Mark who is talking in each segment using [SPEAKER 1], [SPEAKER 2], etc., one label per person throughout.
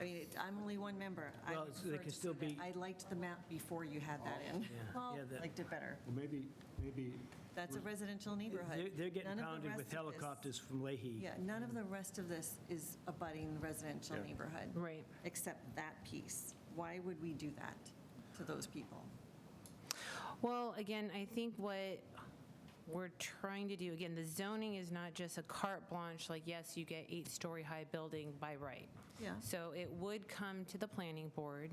[SPEAKER 1] I mean, it- I'm only one member. I
[SPEAKER 2] Well, it's- they
[SPEAKER 1] prefer
[SPEAKER 2] can
[SPEAKER 1] to
[SPEAKER 2] still
[SPEAKER 1] see that.
[SPEAKER 2] be-
[SPEAKER 1] I liked the map before you had that in.
[SPEAKER 2] Well- yeah, that-
[SPEAKER 1] Liked it better.
[SPEAKER 3] Well, maybe, maybe,
[SPEAKER 1] That's a residential neighborhood.
[SPEAKER 2] They're- They're getting
[SPEAKER 1] None of the
[SPEAKER 2] pounded
[SPEAKER 1] rest
[SPEAKER 2] with
[SPEAKER 1] of this-
[SPEAKER 2] helicopters from Leahy.
[SPEAKER 1] Yeah, none of the rest of this is abutting residential
[SPEAKER 3] Yeah.
[SPEAKER 1] neighborhood.
[SPEAKER 4] Right.
[SPEAKER 1] Except that piece. Why would we do that to those people?
[SPEAKER 4] Well, again, I think what we're trying to do, again, the zoning is not just a carte blanche, like, yes, you get eight-story-high building by right.
[SPEAKER 1] Yeah.
[SPEAKER 4] So it would come to the planning board.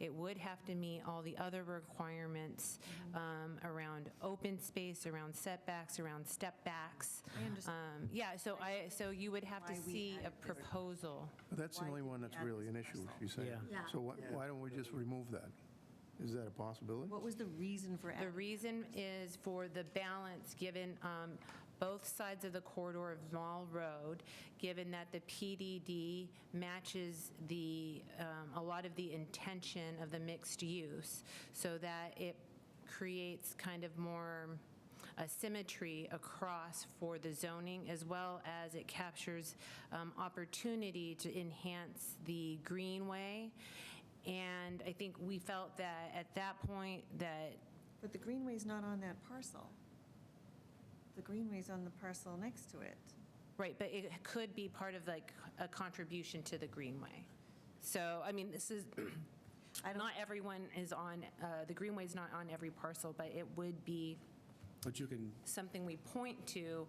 [SPEAKER 4] It would have to meet all the other requirements
[SPEAKER 1] Mm-hmm.
[SPEAKER 4] um, around open space, around setbacks, around step backs.
[SPEAKER 1] I understand.
[SPEAKER 4] Um, Yeah, so I, so you would have to
[SPEAKER 1] Why we
[SPEAKER 4] see a
[SPEAKER 1] added this.
[SPEAKER 4] proposal.
[SPEAKER 5] That's the
[SPEAKER 1] Why
[SPEAKER 5] only
[SPEAKER 1] did
[SPEAKER 5] one
[SPEAKER 1] we
[SPEAKER 5] that's
[SPEAKER 1] add
[SPEAKER 5] really
[SPEAKER 1] this
[SPEAKER 5] an issue,
[SPEAKER 1] parcel?
[SPEAKER 5] you say.
[SPEAKER 2] Yeah.
[SPEAKER 6] Yeah.
[SPEAKER 5] So why, why don't we just remove that? Is that a possibility?
[SPEAKER 1] What was the reason for
[SPEAKER 4] The
[SPEAKER 1] adding?
[SPEAKER 4] reason is for the balance, given um, both sides of the corridor of Mall Road, given that the PDD matches the, um, a lot of the intention of the mixed use, so that it creates kind of more a symmetry across for the zoning, as well as it captures um, opportunity to enhance the greenway. And I think we felt that at that point, that
[SPEAKER 1] But the greenway's not on that parcel. The greenway's on the parcel next to it.
[SPEAKER 4] Right, but it could be part of like a contribution to the Greenway. So, I mean, this is, not everyone is on, uh, the Greenway's not on every parcel, but it would be
[SPEAKER 3] but you can,
[SPEAKER 4] something we point to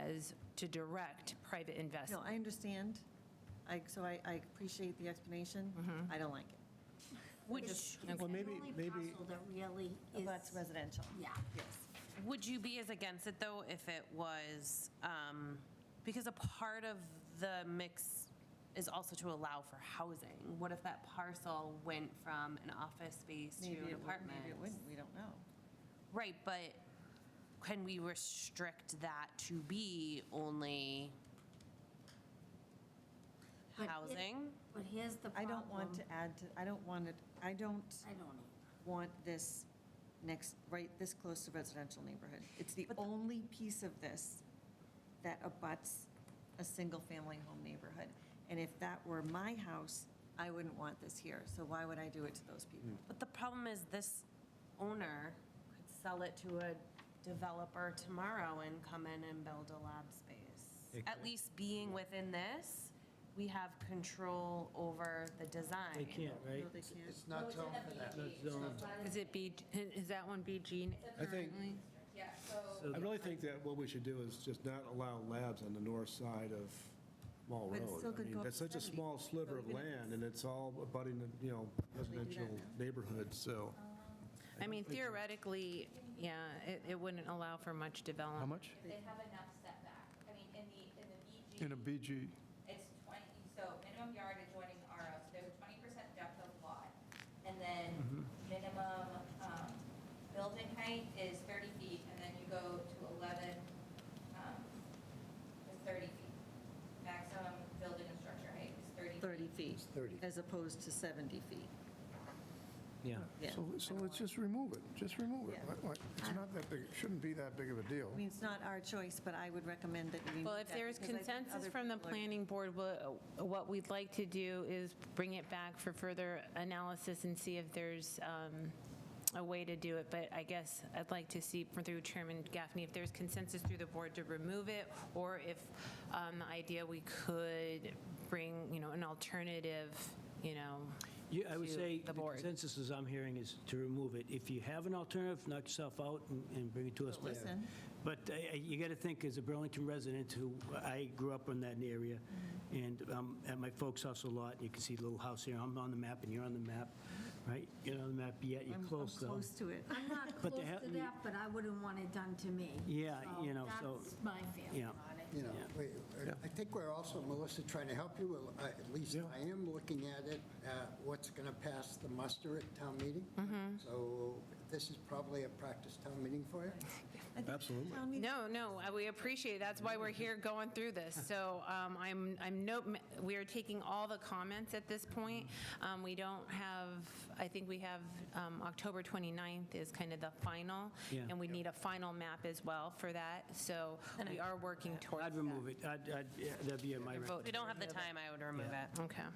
[SPEAKER 4] as to direct private
[SPEAKER 1] No,
[SPEAKER 4] investment.
[SPEAKER 1] I understand. I, so I, I appreciate the explanation. I don't like it.
[SPEAKER 6] Which
[SPEAKER 4] Well,
[SPEAKER 6] is the
[SPEAKER 3] maybe-
[SPEAKER 6] only
[SPEAKER 3] maybe-
[SPEAKER 6] parcel that really
[SPEAKER 1] Well, Oh,
[SPEAKER 6] is,
[SPEAKER 1] That's residential.
[SPEAKER 6] yeah.
[SPEAKER 7] Would you be as against it, though, if it was, um, because a part of the mix is also to allow for housing? What if that parcel went from an office space to
[SPEAKER 1] Maybe
[SPEAKER 7] an
[SPEAKER 1] it would,
[SPEAKER 7] apartment?
[SPEAKER 1] maybe it wouldn't, we don't know.
[SPEAKER 7] Right, but can we restrict that to be only
[SPEAKER 6] But it-
[SPEAKER 7] housing?
[SPEAKER 6] But here's the
[SPEAKER 1] I
[SPEAKER 6] problem.
[SPEAKER 1] don't want to add, to. I don't want it, I don't
[SPEAKER 6] I don't either.
[SPEAKER 1] want this next, right, this close to residential neighborhood. It's the only piece of this that abuts a single-family home neighborhood. And if that were my house, I wouldn't want this here, so why would I do it to those people?
[SPEAKER 7] But the problem is this owner could sell it to a developer tomorrow and come in and build a lab space. At least being within this, we have control over the design.
[SPEAKER 2] They can't, right?
[SPEAKER 1] No, they can't.
[SPEAKER 8] not zoned for that.
[SPEAKER 4] Is it B, is that one BG?
[SPEAKER 3] I think,
[SPEAKER 2] So
[SPEAKER 3] I really think that what we should do is just not allow labs on the north side of Mall
[SPEAKER 1] But it still
[SPEAKER 3] Road. I
[SPEAKER 1] could go
[SPEAKER 3] mean,
[SPEAKER 1] up
[SPEAKER 3] that's
[SPEAKER 1] to
[SPEAKER 3] such a
[SPEAKER 1] 70,
[SPEAKER 3] small sliver of
[SPEAKER 1] even if
[SPEAKER 3] land,
[SPEAKER 1] it's-
[SPEAKER 3] and it's all abutting, the, you know, residential neighborhoods, so.
[SPEAKER 4] I mean theoretically, yeah, it, it wouldn't allow for much development.
[SPEAKER 5] How much?
[SPEAKER 9] They have enough setback. I mean, in the, in the BG,
[SPEAKER 5] In a BG,
[SPEAKER 9] it's 20, so minimum yard adjoining RO, so there's a 20% depth of lot. And then minimum um, building height is 30 feet, and then you go to 11 um, to 30 feet. Maximum building and structure height is 30 feet.
[SPEAKER 1] 30
[SPEAKER 8] 30.
[SPEAKER 1] feet. As opposed to 70 feet.
[SPEAKER 2] Yeah.
[SPEAKER 1] Yeah.
[SPEAKER 5] so, so let's just remove it, just remove it.
[SPEAKER 1] Yeah.
[SPEAKER 5] Why- why- It's not that big, it shouldn't be that big of a deal.
[SPEAKER 1] I mean, it's not our choice, but I would recommend that we.
[SPEAKER 4] Well,
[SPEAKER 1] move
[SPEAKER 4] if
[SPEAKER 1] that
[SPEAKER 4] there's
[SPEAKER 1] because I think
[SPEAKER 4] consensus
[SPEAKER 1] other
[SPEAKER 4] from the
[SPEAKER 1] people are-
[SPEAKER 4] planning board, what what we'd like to do is bring it back for further analysis and see if there's um, a way to do it. But I guess I'd like to see through Chairman Gaffney, if there's consensus through the board to remove it, or if um, the idea we could bring, you know, an alternative, you know,
[SPEAKER 2] Yeah, I would
[SPEAKER 4] to
[SPEAKER 2] say the
[SPEAKER 4] the board.
[SPEAKER 2] consensus as I'm hearing is to remove it. If you have an alternative, knock yourself out and- and bring it to us.
[SPEAKER 1] But listen.
[SPEAKER 2] But uh, you got to think, as a Burlington resident who, I grew up in that area, and um, at my folks' house a lot, you can see the little house here, I'm on the map and you're on the map, right? You're on the map, yet you're
[SPEAKER 1] I'm-
[SPEAKER 2] close
[SPEAKER 1] I'm
[SPEAKER 2] though.
[SPEAKER 1] close to it.
[SPEAKER 6] I'm not
[SPEAKER 2] But
[SPEAKER 6] close
[SPEAKER 2] they have-
[SPEAKER 6] to that, but I wouldn't want it done to me.
[SPEAKER 2] Yeah, you know, so-
[SPEAKER 6] That's my feeling
[SPEAKER 2] yeah.
[SPEAKER 6] on it.
[SPEAKER 8] You know, we- I think we're also, Melissa, trying to help you, uh, at least I am looking at it, uh, what's going to pass the muster at town meeting.
[SPEAKER 1] Mm-hmm.
[SPEAKER 8] So this is probably a practice town meeting for you.
[SPEAKER 3] Absolutely.
[SPEAKER 1] Town meeting
[SPEAKER 4] No, no, uh, we appreciate, it. that's why we're here going through this. So um, I'm, I'm no, we are taking all the comments at this point. Um, We don't have, I think we have, um, October 29th is kind of the final.
[SPEAKER 2] Yeah.
[SPEAKER 4] And we need a final map as well for that, so we are working towards
[SPEAKER 2] I'd
[SPEAKER 4] that.
[SPEAKER 2] remove it, I'd, I'd- yeah, that'd be my recommendation.
[SPEAKER 4] Vote.
[SPEAKER 7] If we don't have the time, I would remove it.
[SPEAKER 4] Okay.